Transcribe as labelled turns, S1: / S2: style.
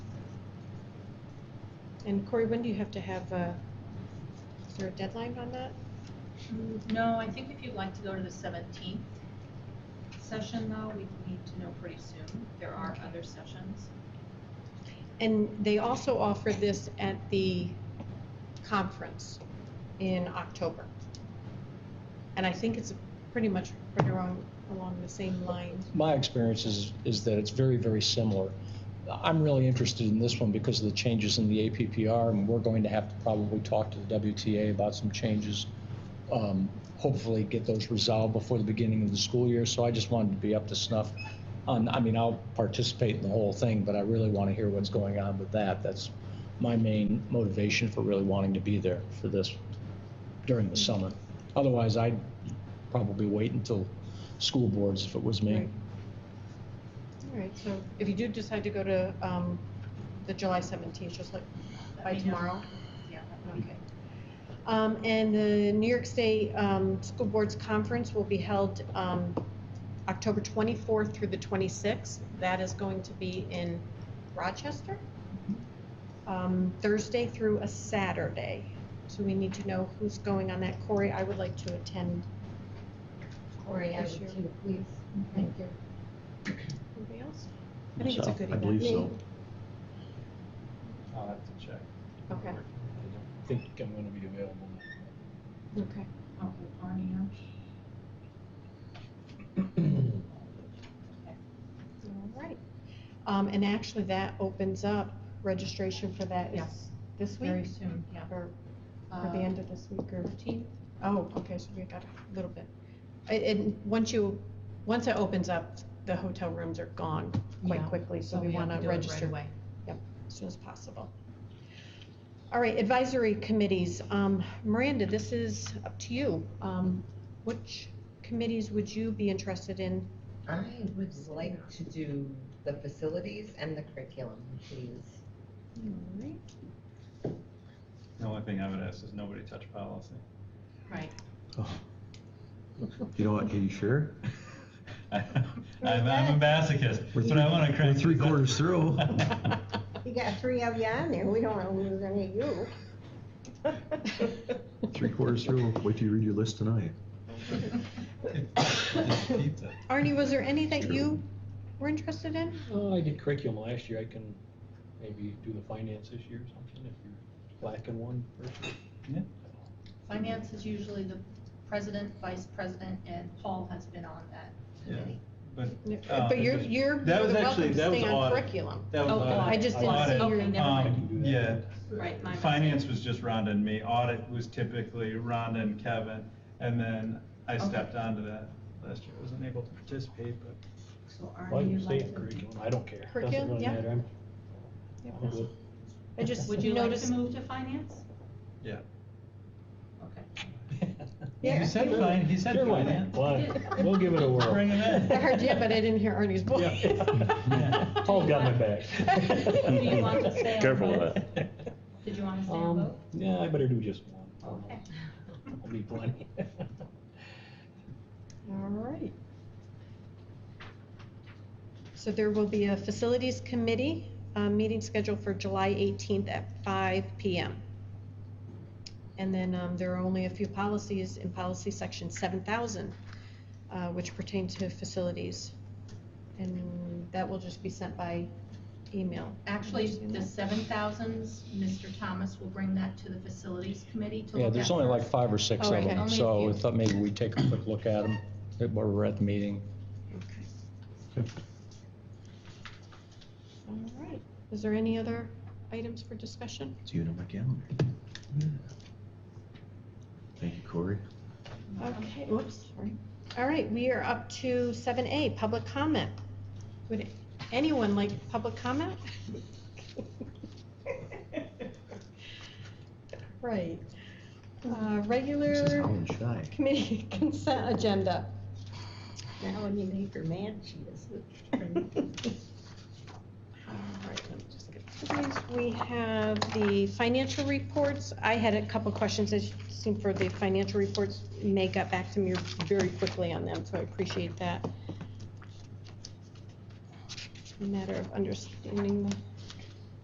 S1: And Corey, when do you have to have, uh, is there a deadline on that?
S2: Mm, No, I think if you'd like to go to the seventeenth session though, we need to know pretty soon. There are other sessions.
S1: And they also offer this at the conference in October. And I think it's pretty much right around, along the same lines.
S3: My experience is, is that it's very, very similar. I'm really interested in this one because of the changes in the APPR, and we're going to have to probably talk to the WTA about some changes. Um, hopefully, get those resolved before the beginning of the school year. So I just wanted to be up to snuff. On, I mean, I'll participate in the whole thing, but I really want to hear what's going on with that. That's my main motivation for really wanting to be there for this during the summer. Otherwise, I'd probably wait until school boards if it was me.
S1: Right. All right, so if you do decide to go to, um, the July seventeenth, just like
S2: Let
S1: by
S2: me know.
S1: tomorrow?
S2: Yeah.
S1: Okay. Um, and the New York State, um, School Boards Conference will be held, um, October twenty-fourth through the twenty-sixth. That is going to be in Rochester, um, Thursday through a Saturday. So we need to know who's going on that. Corey, I would like to attend.
S4: Corey, I
S1: this year.
S4: would too, please. Thank you.
S1: Anybody else? I think it's a
S5: Myself,
S1: good
S5: I
S1: event.
S5: believe so.
S6: I'll have to check.
S1: Okay,
S3: I think I'm going to be available.
S1: okay.
S2: Okay, Barney, I'm
S1: All right. Um, and actually, that opens up registration for that is
S2: Yes,
S1: this
S2: very
S1: week?
S2: soon, yeah.
S1: Or or the
S2: Uh,
S1: end of this week or?
S2: 15th?
S1: Oh, okay, so we got a little bit. And, and once you, once it opens up, the hotel rooms are gone quite
S2: Yeah,
S1: quickly, so we
S2: have
S1: want to
S2: do it right
S1: register
S2: away.
S1: as soon as possible. All right, advisory committees. Um, Miranda, this is up to you. Um, which committees would you be interested in?
S4: I would like to do the facilities and the curriculum, please.
S1: All right.
S6: The only thing I would ask is nobody touch policy.
S2: Right.
S5: You know what, are you sure?
S6: I'm, I'm a masochist, but I want to
S5: We're
S6: crank.
S5: three quarters through.
S7: You got three of you on there, we don't wanna lose any of you.
S5: Three quarters through. Wait till you read your list tonight.
S6: It's pizza.
S1: Arnie, was there any that
S5: Sure.
S1: you were interested in?
S3: Oh, I did curriculum last year. I can maybe do the finance this year or something if you're lacking one person.
S2: Finance is usually the president, vice president, and Paul has been on that
S6: Yeah.
S2: committee.
S6: Uh,
S1: But you're, you're
S6: that
S1: you're
S6: was
S1: welcome
S6: actually-
S1: to
S6: that was
S1: stay on
S6: audit.
S1: curriculum.
S6: That was
S2: Oh,
S6: audit.
S1: I just didn't see
S6: Audit,
S1: your.
S2: Okay, never mind.
S6: um, Yeah.
S2: Right, my
S6: Finance was just Rhonda and me. Audit was typically Rhonda and Kevin. And then I
S2: Okay.
S6: stepped onto that last year. I wasn't able to participate, but
S2: So
S8: Well,
S2: Arnie,
S8: you
S2: you'd
S8: can say
S2: like
S8: it,
S2: to?
S8: curriculum, I don't care,
S1: Curriculum,
S8: doesn't really
S1: yeah.
S8: matter, I'm, I'm good.
S1: I just
S2: Would you like to
S1: noticed,
S2: move to finance?
S6: Yeah.
S2: Okay.
S6: he said fine, he said
S8: Sure, why not?
S6: finance.
S8: Why- we'll give it a whirl.
S6: Bring him
S1: I heard you, but I didn't hear Ernie's voice.
S8: Yeah. Paul's got my back.
S2: Do you want to stay on
S5: Careful with
S2: both?
S5: that.
S2: Did you want to stay on
S8: Um,
S2: both?
S8: yeah, I better do just one. I don't know.
S2: Okay.
S8: I'll be plenty.
S1: All right. So there will be a facilities committee, uh, meeting scheduled for July 18th at 5 PM. And then, um, there are only a few policies in policy section 7,000, uh, which pertain to facilities. And that will just be sent by email.
S2: Actually,
S1: Understand
S2: the
S1: that?
S2: seven thousands, Mr. Thomas will bring that to the facilities committee to look at.
S3: Yeah, there's only like
S2: first.
S3: five or six
S1: Oh,
S3: of
S1: okay.
S3: them,
S2: Only a
S3: so I
S2: few.
S3: thought maybe we'd take a quick look at them while we're at the meeting.
S1: All right. Is there any other items for discussion?
S5: It's you on my calendar. Thank you, Corey.
S1: Okay, whoops, sorry. All right, we are up to seven A, public comment. Would anyone like public comment? Right. Uh,
S5: This is
S1: Regular
S5: Alan Shy.
S1: committee consent agenda.
S7: Now, when you make her mad, she is.
S1: All right, let me just get to these. We have the financial reports. I had a couple questions, as you seen for the financial reports. May got back to me very quickly on them, so I appreciate that. Matter of understanding the